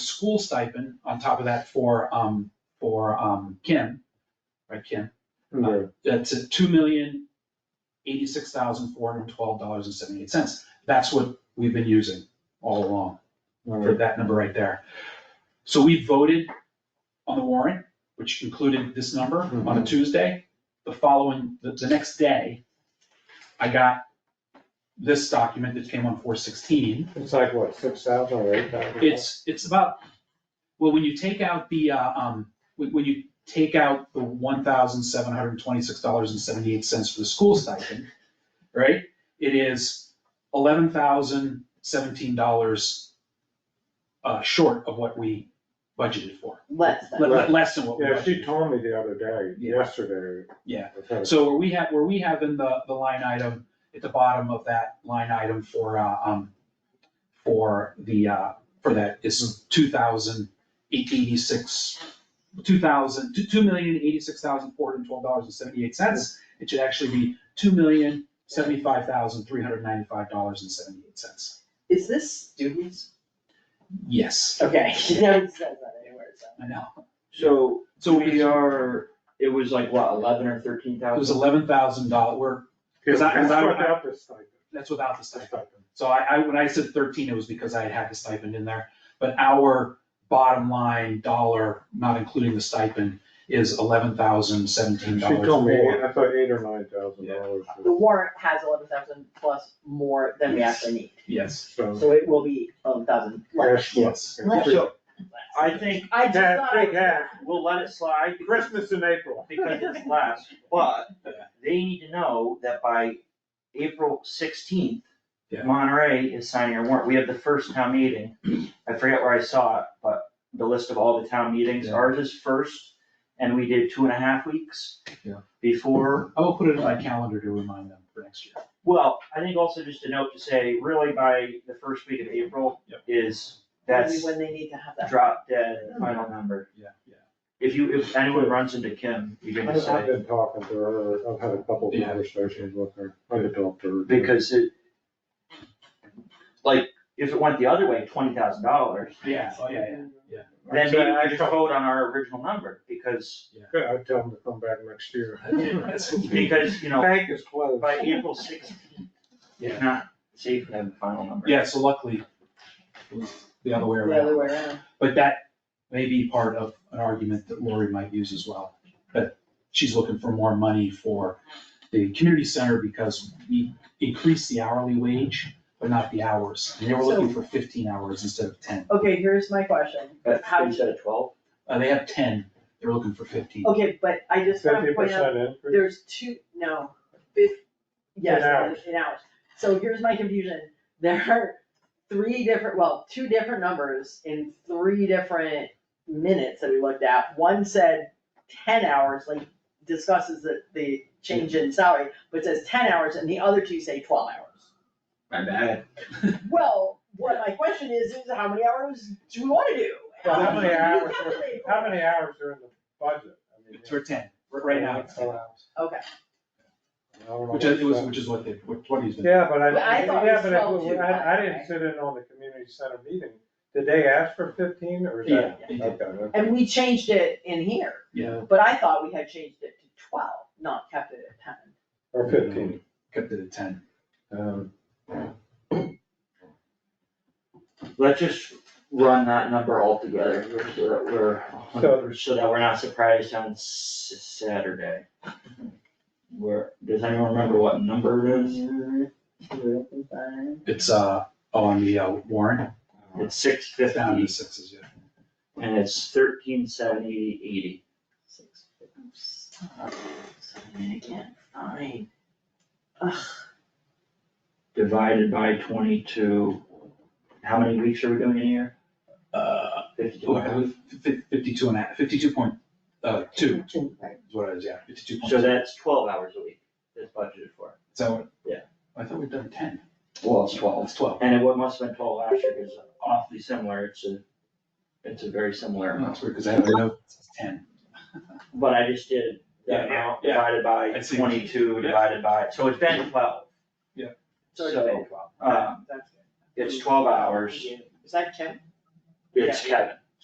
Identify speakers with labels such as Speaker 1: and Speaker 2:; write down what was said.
Speaker 1: school stipend on top of that for, um, for, um, Kim, right, Kim?
Speaker 2: Okay.
Speaker 1: That's at two million, eighty-six thousand, four hundred and twelve dollars and seventy-eight cents. That's what we've been using all along
Speaker 2: All
Speaker 1: for
Speaker 2: right.
Speaker 1: that number right there. So we voted on the warrant, which included this number on a
Speaker 2: Mhm.
Speaker 1: Tuesday. The following, the, the next day, I got this document that came on four sixteen.
Speaker 2: It's like what, six thousand or eight thousand?
Speaker 1: It's, it's about, well, when you take out the, uh, um, when, when you take out the one thousand seven hundred and twenty-six dollars and seventy-eight cents for the school stipend, right? It is eleven thousand seventeen dollars, uh, short of what we budgeted for,
Speaker 3: less than.
Speaker 1: Le- le-
Speaker 2: Right.
Speaker 1: less than what we
Speaker 2: Yeah,
Speaker 1: budgeted.
Speaker 2: she told me the other day,
Speaker 1: Yeah.
Speaker 2: yesterday.
Speaker 1: Yeah.
Speaker 2: I've had a-
Speaker 1: So where we have, where we have in the, the line item, at the bottom of that line item for, uh, um, for the, uh, for that is two thousand eighty-six, two thousand, two, two million eighty-six thousand four hundred and twelve dollars and seventy-eight cents. It should actually be two million seventy-five thousand three hundred and ninety-five dollars and seventy-eight cents.
Speaker 3: Is this students?
Speaker 1: Yes,
Speaker 3: Okay, no, it says that anywhere, so.
Speaker 1: I know.
Speaker 4: So,
Speaker 1: So
Speaker 4: we
Speaker 1: we, it
Speaker 4: are, it was like what, eleven or thirteen
Speaker 1: was
Speaker 4: thousand?
Speaker 1: eleven thousand dollar, we're, Because I- 'cause I-
Speaker 2: That's without the stipend,
Speaker 1: that's without the
Speaker 2: the
Speaker 1: stipend.
Speaker 2: stipend.
Speaker 1: So I, I, when I said thirteen, it was because I had had the stipend in there, but our bottom line dollar, not including the stipend, is eleven thousand seventeen
Speaker 2: She
Speaker 1: dollars
Speaker 2: told me,
Speaker 1: more.
Speaker 2: I thought eight or nine thousand dollars.
Speaker 3: The warrant has eleven thousand plus more than we actually need,
Speaker 1: Yes,
Speaker 2: So,
Speaker 3: so it will be eleven thousand less.
Speaker 2: cash flow.
Speaker 1: yes.
Speaker 3: Less.
Speaker 4: So, I think
Speaker 3: I just
Speaker 2: Yeah,
Speaker 3: thought I
Speaker 2: big
Speaker 3: was
Speaker 2: hat.
Speaker 4: we'll let it slide because
Speaker 2: Christmas in April.
Speaker 4: because it's last, but they need to know that by April sixteenth,
Speaker 1: Yeah.
Speaker 4: Monterey is signing a warrant. We have the first town meeting. I forget where I saw it, but the list of all the town meetings,
Speaker 1: Yeah.
Speaker 4: ours is first, and we did two and a half weeks
Speaker 1: Yeah.
Speaker 4: before
Speaker 1: I will put it in my calendar to remind them for next year.
Speaker 4: Well, I think also just a note to say, really by the first week of April
Speaker 1: Yep.
Speaker 4: is,
Speaker 3: That's
Speaker 4: that's
Speaker 3: when they need to have that.
Speaker 4: drop dead final number.
Speaker 1: Yeah, yeah.
Speaker 4: If you, if anyone runs into Kim, you
Speaker 2: I-
Speaker 4: can just
Speaker 2: I've
Speaker 4: say,
Speaker 2: been talking to her, I've had a couple
Speaker 1: Yeah.
Speaker 2: conversations with her, I could talk to her.
Speaker 4: because it, like, if it went the other way, twenty thousand dollars,
Speaker 1: Yeah, oh, yeah, yeah.
Speaker 4: then maybe we
Speaker 2: I
Speaker 4: just
Speaker 2: told-
Speaker 4: vote on our original number, because,
Speaker 2: Yeah, I'd tell them to come back next year.
Speaker 1: That's what we-
Speaker 4: because, you know,
Speaker 2: Bank is closed.
Speaker 4: by April sixteenth,
Speaker 1: Yeah.
Speaker 4: it's not safe to have the final number.
Speaker 1: Yeah, so luckily, it was the other way
Speaker 3: The other
Speaker 1: around.
Speaker 3: way around.
Speaker 1: But that may be part of an argument that Lori might use as well. But she's looking for more money for the community center because we increased the hourly wage, but not the hours. And they were looking for fifteen hours instead of ten.
Speaker 3: Okay, here's my question,
Speaker 4: But
Speaker 3: How-
Speaker 4: instead of twelve,
Speaker 1: Uh, they have ten, they're looking for fifteen.
Speaker 3: okay, but I just wanna
Speaker 1: uh,
Speaker 2: Fifty
Speaker 3: point out,
Speaker 2: percent increase.
Speaker 3: there's two, no, fif- yes,
Speaker 2: In hours.
Speaker 3: in hours. So here's my confusion, there are three different, well, two different numbers in three different minutes that we looked at. One said ten hours, like discusses the, the change in salary, but says ten hours, and the other two say twelve hours.
Speaker 4: my bad.
Speaker 3: Well, what my question is, is how many hours do we wanna do?
Speaker 2: Well, how many
Speaker 3: You
Speaker 2: hours are-
Speaker 3: calculate
Speaker 2: How
Speaker 3: for it.
Speaker 2: many hours are in the budget? I mean,
Speaker 1: It's for ten, right now, it's 10,
Speaker 3: Okay,
Speaker 2: I don't know
Speaker 1: which is, it was,
Speaker 2: what-
Speaker 1: which is what they, what what he's been.
Speaker 2: Yeah, but I,
Speaker 3: But I thought it
Speaker 2: yeah,
Speaker 3: was
Speaker 2: but I,
Speaker 3: 12 too,
Speaker 2: I, I
Speaker 3: right?
Speaker 2: didn't sit in on the community center meeting. Did they ask for fifteen or is
Speaker 1: Yeah,
Speaker 2: that?
Speaker 1: they did.
Speaker 2: Okay, okay.
Speaker 3: and we changed it in here.
Speaker 1: Yeah.
Speaker 3: But I thought we had changed it to twelve, not kept it at ten.
Speaker 2: Or fifteen.
Speaker 1: kept it at ten.
Speaker 2: Um,
Speaker 4: Let's just run that number all together, so that we're, a hundred- so that we're not surprised on S- Saturday. Where, does anyone remember what number it is?
Speaker 1: It's, uh, on the uh, warrant,
Speaker 4: It's six
Speaker 1: it's down to
Speaker 4: fifty,
Speaker 1: sixes, yeah.
Speaker 4: and it's thirteen seventy eighty.
Speaker 3: I can't find.
Speaker 4: Divided by twenty-two, how many weeks are we doing in a year?
Speaker 1: Uh,
Speaker 4: Fifty-two.
Speaker 1: okay, with fif- fifty-two and a half, fifty-two point, uh, two is what it is, yeah, fifty-two point two.
Speaker 4: So that's twelve hours a week, that's budgeted for.
Speaker 1: Is that what?
Speaker 4: Yeah.
Speaker 1: I thought we'd done ten.
Speaker 4: Well, it's twelve.
Speaker 1: It's twelve.
Speaker 4: And it wa- must have been twelve last year, because awfully similar, it's a, it's a very similar amount.
Speaker 1: That's weird, because I have a note, that says ten.
Speaker 4: But I just did
Speaker 1: Yeah,
Speaker 4: that amount
Speaker 1: yeah.
Speaker 4: divided by
Speaker 1: I see.
Speaker 4: twenty-two,
Speaker 1: Yeah.
Speaker 4: divided by, so it's been twelve.
Speaker 1: Yeah.
Speaker 4: So, um, it's twelve hours,
Speaker 3: Is that Kim?
Speaker 4: it's Kevin,